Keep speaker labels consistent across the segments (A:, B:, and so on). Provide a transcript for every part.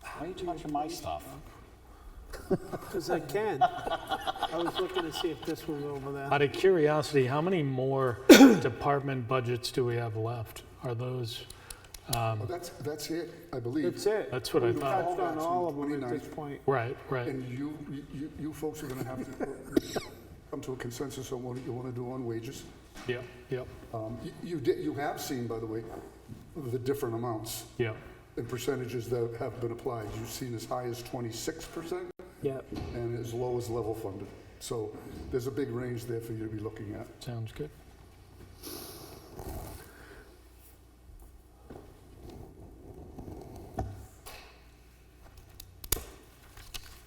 A: Why are you touching my stuff?
B: Because I can. I was looking to see if this was over there.
C: Out of curiosity, how many more department budgets do we have left? Are those,
D: Well, That's, that's it, I believe.
B: That's it.
C: that's what I
B: We've
C: thought.
B: touched on all of them at
D: 29.
B: this point.
C: Right, right.
D: And you, you, you folks are gonna have to uh, come to a consensus on what you wanna do on wages.
C: Yep, yep,
D: Um, you- You did, you have seen, by the way, the different amounts
C: yep.
D: and percentages that have been applied. You've seen as high as twenty-six percent
B: Yep.
D: and as low as level funded. So there's a big range there for you to be looking at.
C: Sounds good.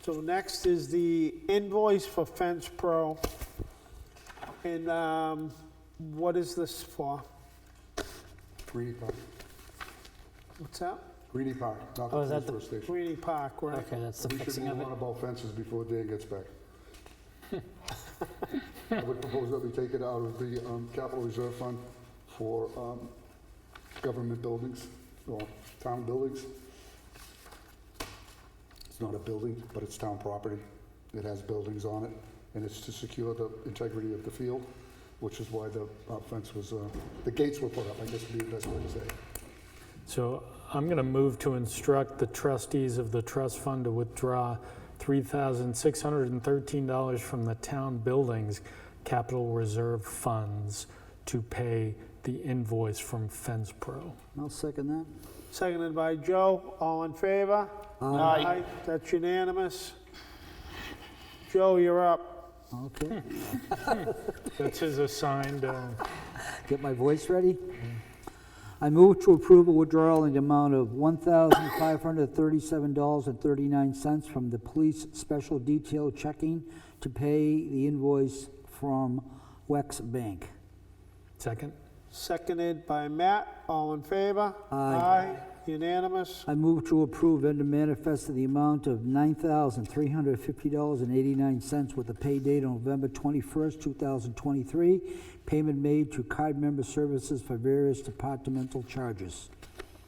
B: So next is the invoice for Fence Pro. And um, what is this for?
D: Greenie Park,
B: What's that?
D: Greenie Park, not
E: Oh, is
D: the
E: that the-
D: transfer station.
B: Greeny Park, right?
E: Okay, that's the
D: We should
E: fixing of
D: move
E: it.
D: on about fences before Dan gets back. I would propose that we take it out of the um, capital reserve fund for um, government buildings, or town buildings. It's not a building, but it's town property. It has buildings on it, and it's to secure the integrity of the field, which is why the uh, fence was, uh, the gates were put up, I guess would be the best way to say it.
C: So I'm going to move to instruct the trustees of the trust fund to withdraw $3,613 from the town buildings capital reserve funds to pay the invoice from Fence Pro.
E: I'll second that.
B: Seconded by Joe. All in favor?
A: Aye.
B: That's unanimous. Joe, you're up.
E: Okay,
C: That's his assigned, uh,
E: get my voice ready. I move to approve a withdrawal in the amount of $1,537.39 from the police special detail checking to pay the invoice from Wex Bank.
C: second?
B: Seconded by Matt. All in favor? Aye. Unanimous.
E: I move to approve vendor manifest in the amount of $9,350.89 with a pay date on November 21st, 2023. Payment made to card member services for various departmental charges.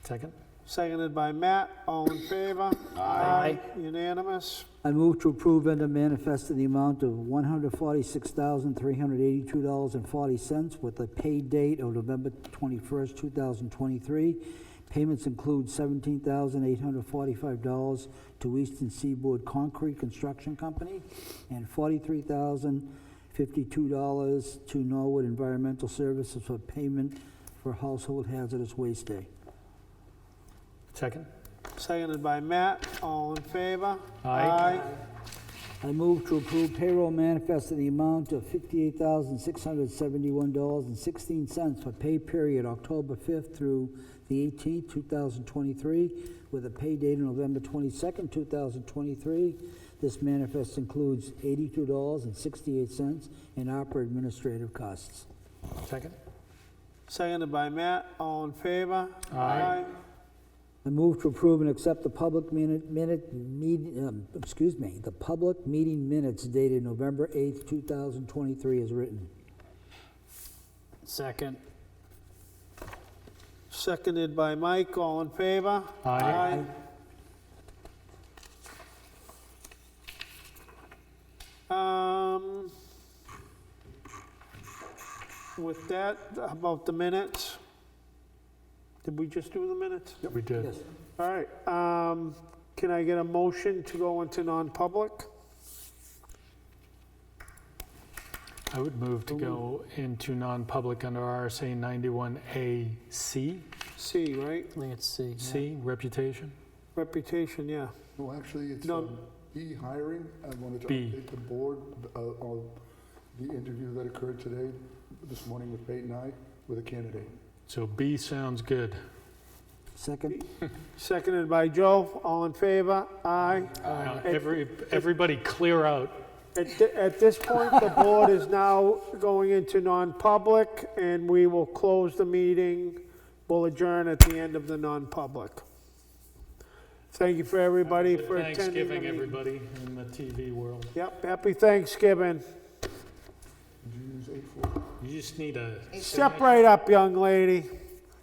C: Second?
B: Seconded by Matt. All in favor? Aye. Unanimous.
E: I move to approve vendor manifest in the amount of $146,382.40 with a pay date of November 21st, 2023. Payments include $17,845 to Eastern Seaboard Concrete Construction Company and $43,052 to Norwood Environmental Services for payment for Household Hazardous Waste Day.
C: Second?
B: Seconded by Matt. All in favor?
C: Aye.
E: I move to approve payroll manifest in the amount of $58,671.16 for pay period October 5th through the 18th, 2023, with a pay date of November 22nd, 2023. This manifest includes $82.68 in opera administrative costs.
C: Second?
B: Seconded by Matt. All in favor? Aye.
E: I move to approve and accept the public minute, minute, meet- um, excuse me, the public meeting minutes dated November 8th, 2023, as written.
A: Second.
B: Seconded by Mike. All in favor? Aye. Um, with that, about the minutes. Did we just do the minutes?
C: We did.
B: All right, um, can I get a motion to go into non-public?
C: I would move to go into non-public under RSA 91AC,
B: C, right?
E: I think it's C.
C: C, reputation.
B: Reputation, yeah.
D: No, actually, it's
B: No.
D: um, E hiring. I wanted to
C: B.
D: update the board uh, on the interview that occurred today, this morning with Peyton and I, with a candidate.
C: So B sounds good.
E: Second?
B: Seconded by Joe, all in favor? Aye.
C: Now, Every, everybody clear out.
B: At, thi- at this point, the board is now going into non-public, and we will close the meeting. We'll adjourn at the end of the non-public. Thank you for everybody for attending. the
C: Thanksgiving,
B: meeting.
C: everybody in the TV world.
B: Yep, happy Thanksgiving.
D: Did you use eight four?
C: You just need a,
B: Step right up, young lady.